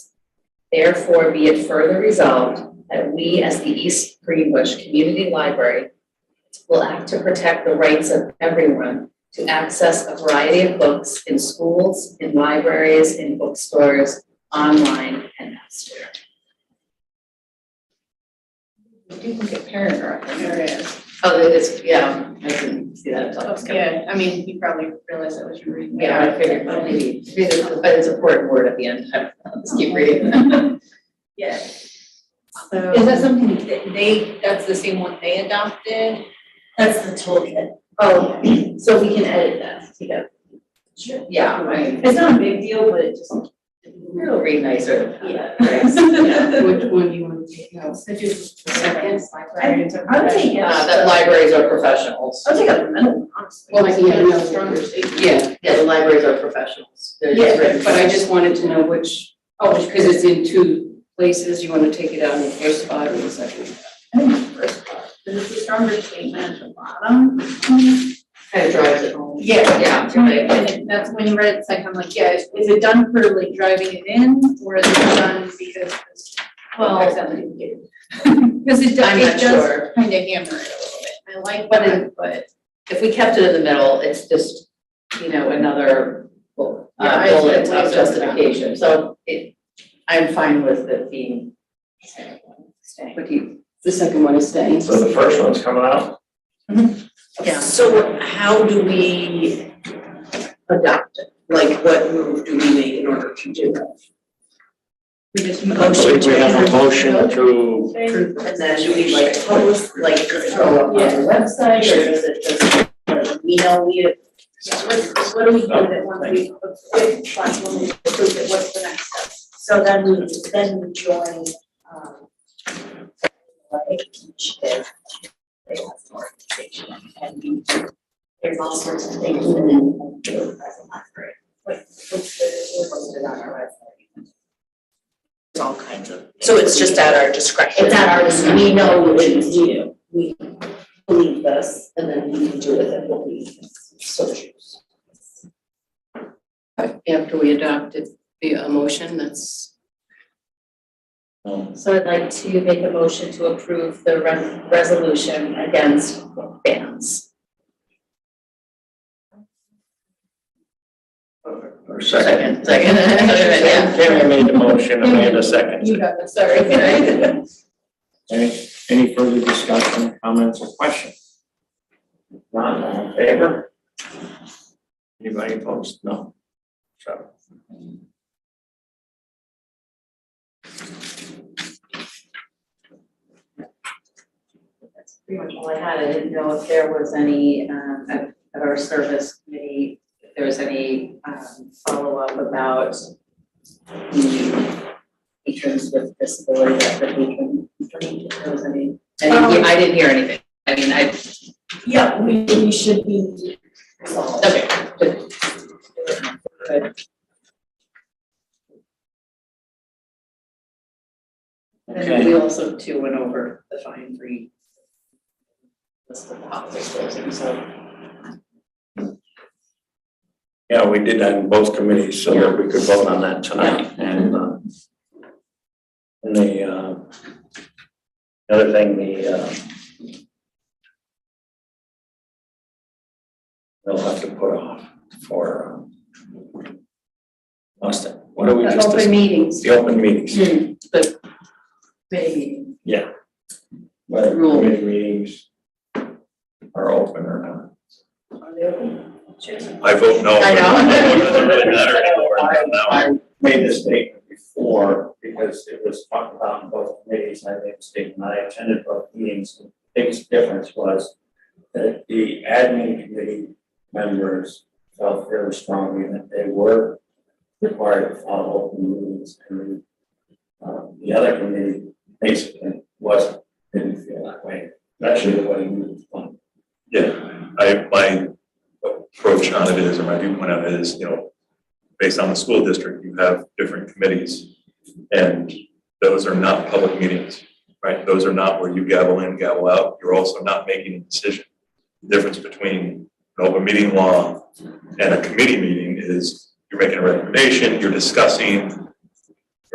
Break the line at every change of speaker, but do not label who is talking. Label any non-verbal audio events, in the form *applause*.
Therefore, be it further resolved that we, as the East Greenbush Community Library, will act to protect the rights of everyone to access a variety of books in schools, in libraries, in bookstores, online, and elsewhere. You do look at paragraph,
There it is.
Oh, there is, yeah, I didn't see that until I was coming.
Yeah, I mean, you probably realized that was your reading.
Yeah, I figured, well, maybe, maybe the- but it's a important word at the end, I'll just keep reading.
Yeah.
Is
So,
Um,
that something that they, that's the same one they adopted?
That's the toolkit. Oh, so we can edit that together.
Sure.
Yeah, right.
It's not a big deal, but it just.
It'll read nicer.
Yeah. *laughs*
Yeah.
which one you want to take out? So just the second librarian to.
I would take it.
Uh, that libraries are professionals.
I'll take out the middle, honestly.
Well, yeah, no.
statement.
Yeah,
Yeah, the libraries are professionals. They're just
yeah,
written-
but I just wanted to know which, oh, because it's in two places, you want to take it out in the first spot or the second?
I think it's the first part, because it's a stronger statement at the bottom.
Kind of drives it home.
Yeah.
Yeah,
Right,
right.
and it- that's when you read it, it's like, I'm like, yeah, is is it done for like driving it in, or is it done because it's.
Well-
*laughs* Because it
I'm
does,
not
it does
sure.
kind of hammer it a little bit, I like that, but.
If we kept it in the middle, it's just, you know, another bu-
Yeah,
uh,
I-
bullet
I-
of justification. So it, I'm fine with it being. What do you?
The second one is staying.
So the first one's coming out?
Yeah.
So how do we adopt it? Like, what move do we make in order to do that?
We just.
I believe we have a motion to,
And then do we like post, like, does it go up on
Yeah.
the website, or is it just, like, we know we have?
What, what do we do with it once we, if, like, when we approve it, what's the next step?
So then we, then we join, um, like, each day, they have an organization, and we, there's all sorts of things, and then we do it as a library. Like, what's the, what's it on our website? It's all kinds of.
So it's just at our discretion.
It's at our, dis- we know what we do, we believe this, and then we do with it what we so choose.
After we adopted the uh, motion, that's,
So I'd like to make a motion to approve the re- resolution against bans.
or second?
*laughs* Second. Yeah.
Tammy made the motion, Amanda
You
seconded.
got this, sorry.
Any, any further discussion, comments, or questions? None, all in favor? Anybody opposed? No. So.
That's pretty much all I had. I didn't know if there was any, um, at, at our service committee, if there was any, um, follow-up about the patrons with disability that the patron, if there was any, I didn't hear- I didn't hear anything. I mean, I,
Yeah, we, we should be resolved.
okay. Good. And then we also too went over the fine free. List of policies, closing, so.
Yeah, we did that in both committees so that we could vote on that tonight and, uh, and the, uh, the other thing, the, uh, they'll have to put off for, um, lost it. What do we
the
just,
open Hmm,
dis-
meetings.
the open meetings,
Maybe.
whether
Rule.
committee meetings are open or not.
I vote no.
I know.
but It doesn't really
*laughs*
matter anymore. Now I-
I made this statement before because it was talked about in both committees, and I made the statement, I attended both meetings. The Biggest difference was that the admin committee members felt very strongly that they were required to follow open meetings and um, the other committee basically wasn't, didn't feel that way, especially the way you was funded.
Yeah, I, my approach on it is, or my viewpoint on it is, you know, based on the school district, you have different committees. And those are not public meetings, right? Those are not where you gavel in, gavel out. You're also not making a decision. The Difference between an open meeting law and a committee meeting is you're making a recommendation, you're discussing,